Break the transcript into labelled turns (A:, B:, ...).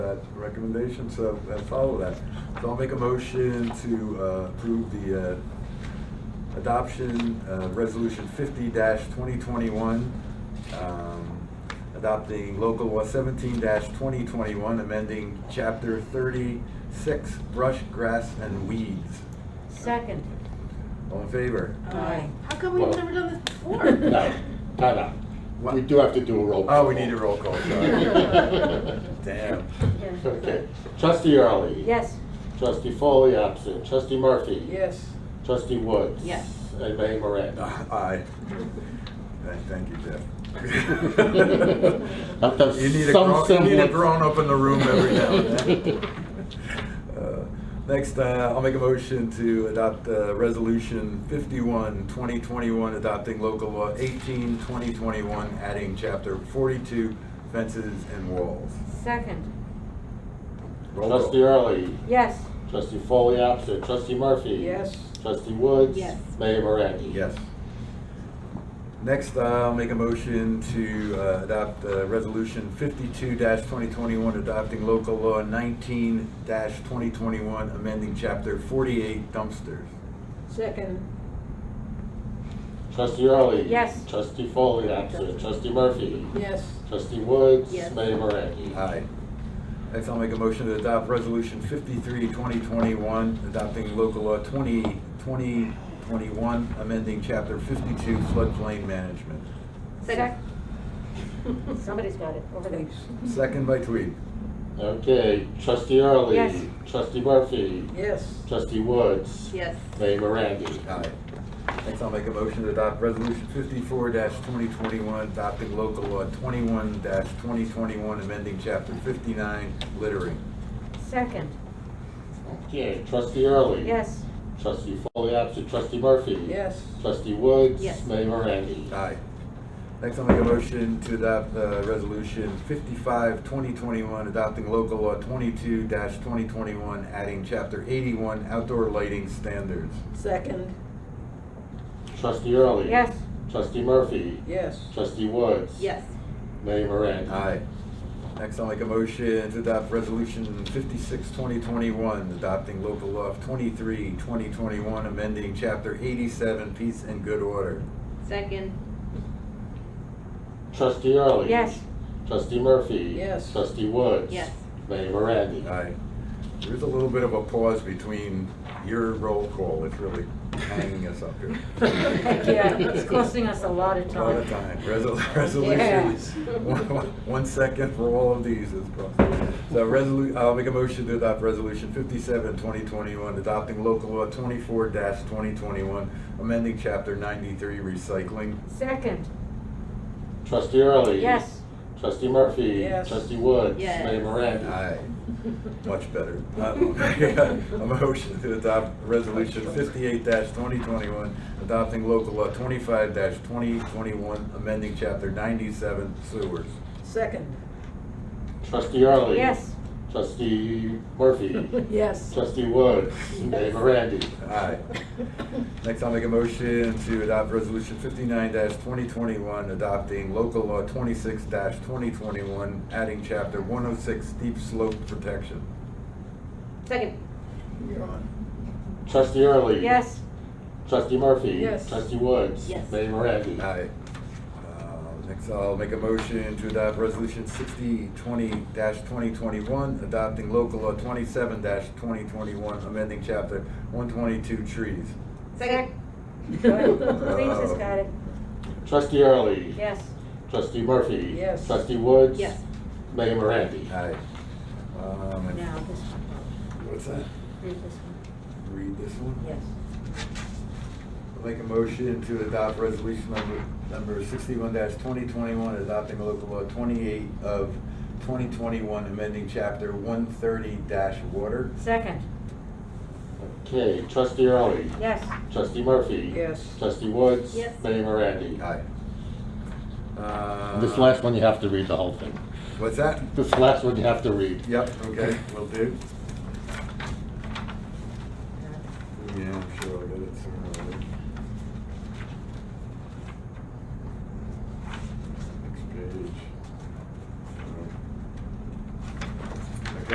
A: that recommendation, so that follow that. So I'll make a motion to uh, approve the uh, adoption, uh, Resolution fifty twenty twenty-one, um, adopting local law seventeen twenty twenty-one, amending chapter thirty-six, brush, grass, and weeds.
B: Second.
A: All in favor?
B: Aye.
C: How come we've never done this before?
D: No, no, no.
A: What?
D: We do have to do a roll
A: Oh,
D: call.
A: we need a roll call, sorry. Damn.
D: Okay. Trustee Early.
B: Yes.
D: Trustee Foley absent. Trustee Murphy.
C: Yes.
D: Trustee Woods.
B: Yes.
D: And Mayor Moran.
A: Ah, Aye. Thank- Thank you, Jeff.
D: Have to have
A: You need a
D: some
A: grown, you need a
D: semblance.
A: grown up in the room every now and then. Uh, Next, uh, I'll make a motion to adopt uh, Resolution 51, 2021, adopting local law 18, 2021, adding Chapter 42, fences and walls.
B: Second.
A: Roll call.
D: Trustee Early.
B: Yes.
D: Trustee Foley absent. Trustee Murphy.
C: Yes.
D: Trustee Woods.
B: Yes.
D: Mayor Moran.
A: Yes. Next, I'll make a motion to uh, adopt uh, Resolution 52-2021, adopting local law 19-2021, amending Chapter 48 dumpsters.
C: Second.
D: Trustee Early.
B: Yes.
D: Trustee Foley absent. Trustee Murphy.
C: Yes.
D: Trustee Woods.
C: Yes.
D: Mayor Moran.
A: Aye. Next, I'll make a motion to adopt Resolution 53-2021, adopting local law 20-2021, amending Chapter 52 floodplain management.
B: Second. Somebody's got it over there.
A: Second by Tweed.
D: Okay, trustee Early.
B: Yes.
D: Trustee Murphy.
C: Yes.
D: Trustee Woods.
B: Yes.
D: Mayor Mirandi.
A: Aye. Next, I'll make a motion to adopt Resolution fifty-four twenty twenty-one, adopting local law twenty-one twenty twenty-one, amending chapter fifty-nine, littering.
B: Second.
D: Okay, trustee Early.
B: Yes.
D: Trustee Foley absent. Trustee Murphy.
C: Yes.
D: Trustee Woods.
B: Yes.
D: Mayor Mirandi.
A: Aye. Next, I'll make a motion to adopt, uh, Resolution fifty-five twenty twenty-one, adopting local law twenty-two twenty twenty-one, adding chapter eighty-one, outdoor lighting standards.
C: Second.
D: Trustee Early.
B: Yes.
D: Trustee Murphy.
C: Yes.
D: Trustee Woods. Mayor Mirandi.
A: Aye. Next, I'll make a motion to adopt Resolution 56, 2021, adopting local law 23, 2021, amending Chapter 87, Peace and Good Order.
B: Second.
D: Trustee Early.
B: Yes.
D: Trustee Murphy.
C: Yes.
D: Trustee Woods.
B: Yes.
D: Mayor Mirandi.
A: Aye. There's a little bit of a pause between your roll call. It's really hanging us up here.
B: Yeah, it's costing us a lot of
A: A
B: time.
A: lot of time. Resol- Resolutions.
C: Yes.
A: One- One second for all of these is possible. So resolu, I'll make a motion to adopt resolution 57, 2021, adopting local law twenty-four twenty twenty-one, amending chapter ninety-three recycling.
B: Second.
D: Trustee Early.
B: Yes.
D: Trustee Murphy.
C: Yes.
D: Trustee Woods.
B: Yes.
D: Mayor Mirandi.
A: Aye, much better. Um, A motion to adopt resolution fifty-eight twenty twenty-one, adopting local law twenty-five twenty twenty-one, amending chapter ninety-seven sewers.
C: Second.
D: Trustee Early.
B: Yes.
D: Trustee Murphy.
C: Yes.
D: Trustee Woods. Mayor Mirandi.
A: Aye. Next, I'll make a motion to adopt Resolution fifty-nine twenty twenty-one, adopting local law twenty-six twenty twenty-one, adding chapter one oh six steep slope protection.
B: Second.
D: Trustee Early.
B: Yes.
D: Trustee Murphy.
C: Yes.
D: Trustee Woods.
B: Yes.
D: Mayor Mirandi.
A: Aye. Uh, Next, I'll make a motion to adopt Resolution sixty twenty twenty twenty-one, adopting local law twenty-seven twenty twenty-one, amending chapter one twenty-two trees.
B: Second. Please has got it.
D: Trustee Early.
B: Yes.
D: Trustee Murphy.
C: Yes.
D: Trustee Woods.
B: Yes.
D: Mayor Mirandi.
A: Aye. Um, and-
B: Now, this one.
A: What's that?
B: Read this one.
A: Read this one?
B: Yes.
A: I'll Make a motion to adopt resolution number, number sixty-one twenty twenty-one, adopting local law twenty-eight of twenty twenty-one, amending chapter one thirty water.
B: Second.
D: Okay, Trustee Early.
B: Yes.
D: Trustee Murphy.
C: Yes.
D: Trustee Woods.
B: Yes.
D: Mayor Mirandi.
A: Aye. Uh,
D: This last one, you have to read the whole thing.
A: What's that?
D: This last one, you have to read.
A: Yep, okay, will do.
B: Uh,
A: Yeah, I'm sure I'll get it sooner or later.